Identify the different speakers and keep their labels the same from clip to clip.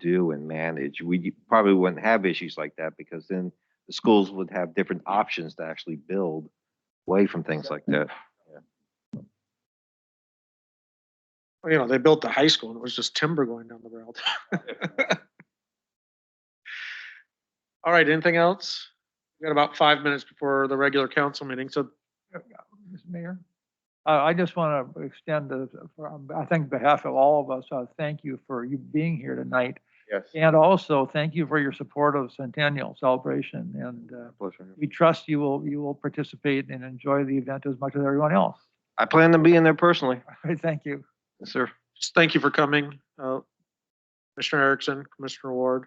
Speaker 1: do and manage, we probably wouldn't have issues like that because then the schools would have different options to actually build away from things like that.
Speaker 2: Well, You know, they built the high school and it was just timber going down the road. All right, anything else? we got about five minutes before the regular council meeting, so
Speaker 3: Mr. Mayor, uh, I just want to extend the, for- on- I think behalf of all of us, uh, thank you for you being here tonight.
Speaker 1: Yes.
Speaker 3: And also, thank you for your support of Centennial Celebration. And uh, we trust you will, you will participate and enjoy the event as much as everyone else.
Speaker 1: I plan to be in there personally,
Speaker 3: All right, Thank you.
Speaker 1: Yes, sir.
Speaker 2: just thank you for coming. uh, Commissioner Erickson, Commissioner Ward.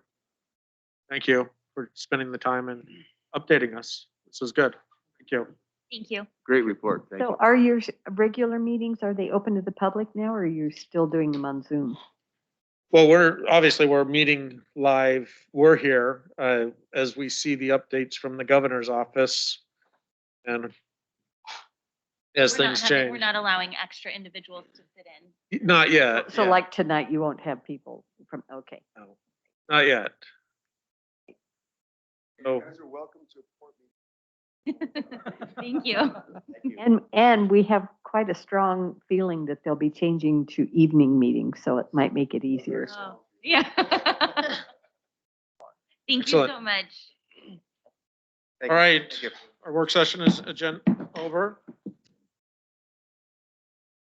Speaker 2: Thank you for spending the time and updating us. This is good. Thank you.
Speaker 4: Thank you.
Speaker 1: Great report. Thank
Speaker 5: So are your s- regular meetings, are they open to the public now, or are you still doing them on Zoom?
Speaker 2: Well, we're, obviously, we're meeting live. We're here uh, as we see the updates from the governor's office and as
Speaker 4: We're not
Speaker 2: things
Speaker 4: having- We're
Speaker 2: change.
Speaker 4: not allowing extra individuals to sit in.
Speaker 2: Not yet.
Speaker 5: So
Speaker 2: yeah,
Speaker 5: like tonight, you won't have people from, okay.
Speaker 2: no, Not yet. So
Speaker 4: Thank you.
Speaker 5: And, and we have quite a strong feeling that they'll be changing to evening meetings, so it might make it easier.
Speaker 4: Oh, Yeah. Thank you
Speaker 2: Excellent.
Speaker 4: so much.
Speaker 2: All right. our work session is agenda over.